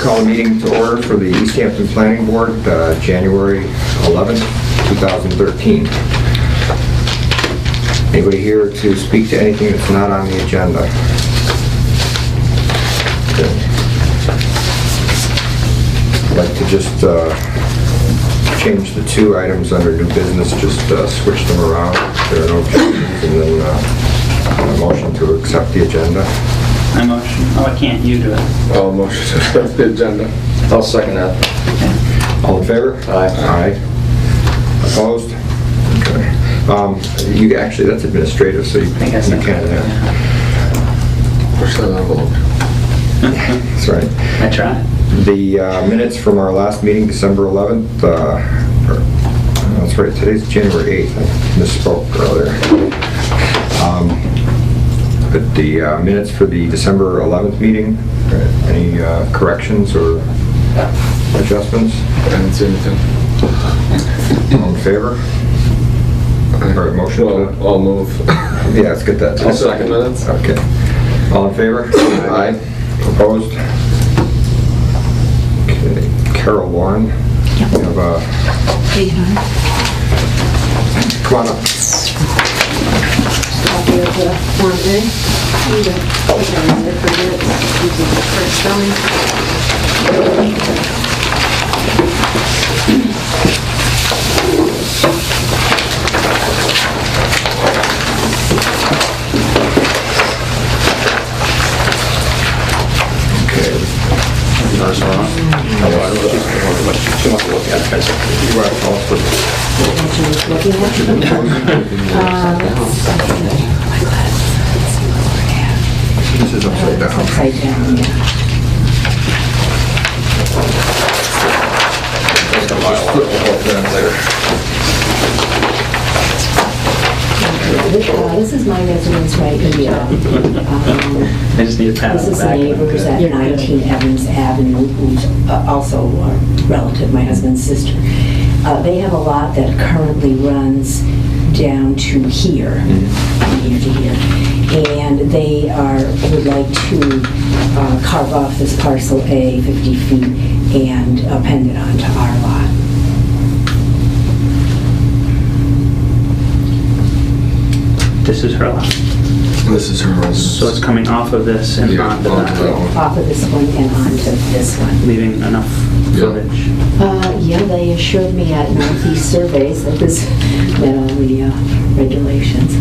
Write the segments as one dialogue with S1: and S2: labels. S1: Call a meeting to order for the East Hampton Planning Board, uh, January 11th, 2013. Anybody here to speak to anything that's not on the agenda? Okay. I'd like to just uh, change the two items under new business, just uh, switch them around. There are no objections, and then uh, a motion to accept the agenda.
S2: I motion, oh, I can't, you do it.
S3: All motion to accept the agenda. I'll second that.
S1: All in favor?
S3: Aye.
S1: Aye. Opposed? Okay. Um, You, actually, that's administrative, so you you
S2: I think I
S1: can, uh,
S2: said
S1: yeah,
S3: Push that envelope.
S1: that's right.
S2: I tried.
S1: The uh, minutes from our last meeting, December 11th, uh, or- no, that's right, today's January 8th, I misspoke earlier. Um, But the uh, minutes for the December 11th meeting, uh, any uh, corrections or adjustments?
S3: I didn't see anything.
S1: All in favor? Or a motion? to-
S3: Well, I'll move.
S1: Yeah, let's get that.
S3: I'll second minutes.
S1: Okay. All in favor? Aye. Opposed? Okay. Carol Warren, you have a,
S4: Hey, hon.
S1: come on up.
S4: Copy of the Form A. You got- you got it for minutes. These are the correct spelling.
S1: Okay. You want to call us for-
S4: That's what I was looking at. Uh,
S1: This is upside
S4: It's
S1: down.
S4: upside down, yeah. This, uh, This is my residence right here. Um,
S2: I just need a pat
S4: This
S2: on the
S4: is the
S2: back.
S4: neighbors at 19 Evans Avenue, who's uh, also a relative, my husband's sister. Uh, They have a lot that currently runs down to here, from here to here. And they are, would like to uh, carve off this parcel A, 50 feet, and append it onto our lot.
S2: This is her lot.
S3: This is her
S2: So it's coming off of this and
S3: Yeah,
S2: onto
S3: onto that
S2: that,
S3: one.
S4: off of this one and onto this one.
S2: leaving enough
S3: Yeah.
S2: footage.
S4: Uh, yeah, they assured me at Northeast Surveys that this met all the uh, regulations.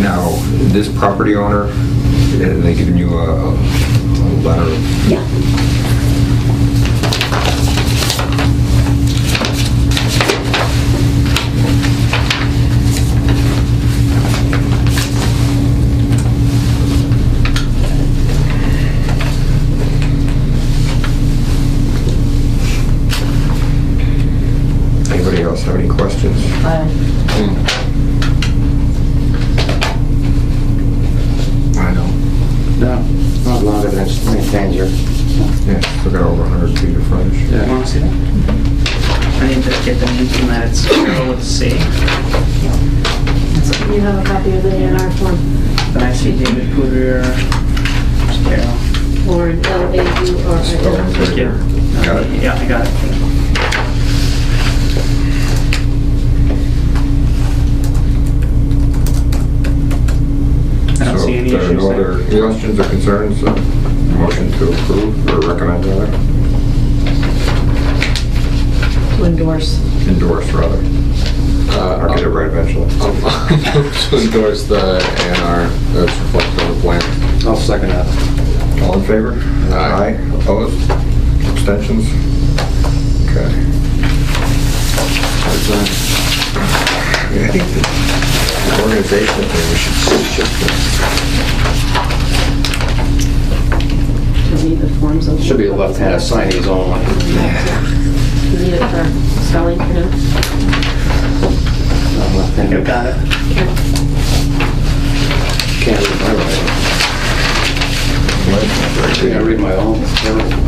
S1: Now, this property owner, have they given you a a letter?
S4: Yeah.
S1: Anybody else have any questions?
S4: Uh,
S3: I know.
S2: No.
S5: Not longer than it's maintained here.
S1: Yeah, still got over 100 feet of frontage.
S2: You wanna see that? I need to get the name from that, it's Carol with a C.
S4: You have a copy of the A and R form,
S2: Then I see David Poudre, There's Carol.
S4: Lauren, L A U R I
S1: Spelled
S2: Thank
S1: right
S2: you.
S1: here. Got it?
S2: Yeah, I got it. I don't
S1: So
S2: see any
S1: if there are
S2: issues
S1: no other
S2: there.
S1: questions or concerns, uh, motion to approve or recommend rather,
S4: N. To endorse.
S1: endorse rather,
S3: Uh,
S1: or get it right eventually.
S3: To endorse the A and R that's reflected on the plan.
S5: I'll second that.
S1: All in favor?
S3: Aye.
S1: Opposed? Abstentions? Okay. I think the Organization thing, we should just
S6: To read the forms of...
S5: Should be a left-handed signees only.
S6: You need it for spelling, for him.
S5: Not
S2: You
S5: left-handed.
S2: got it.
S5: Can't read my writing.
S1: Right,
S5: Can't
S1: right.
S5: read my own. Never-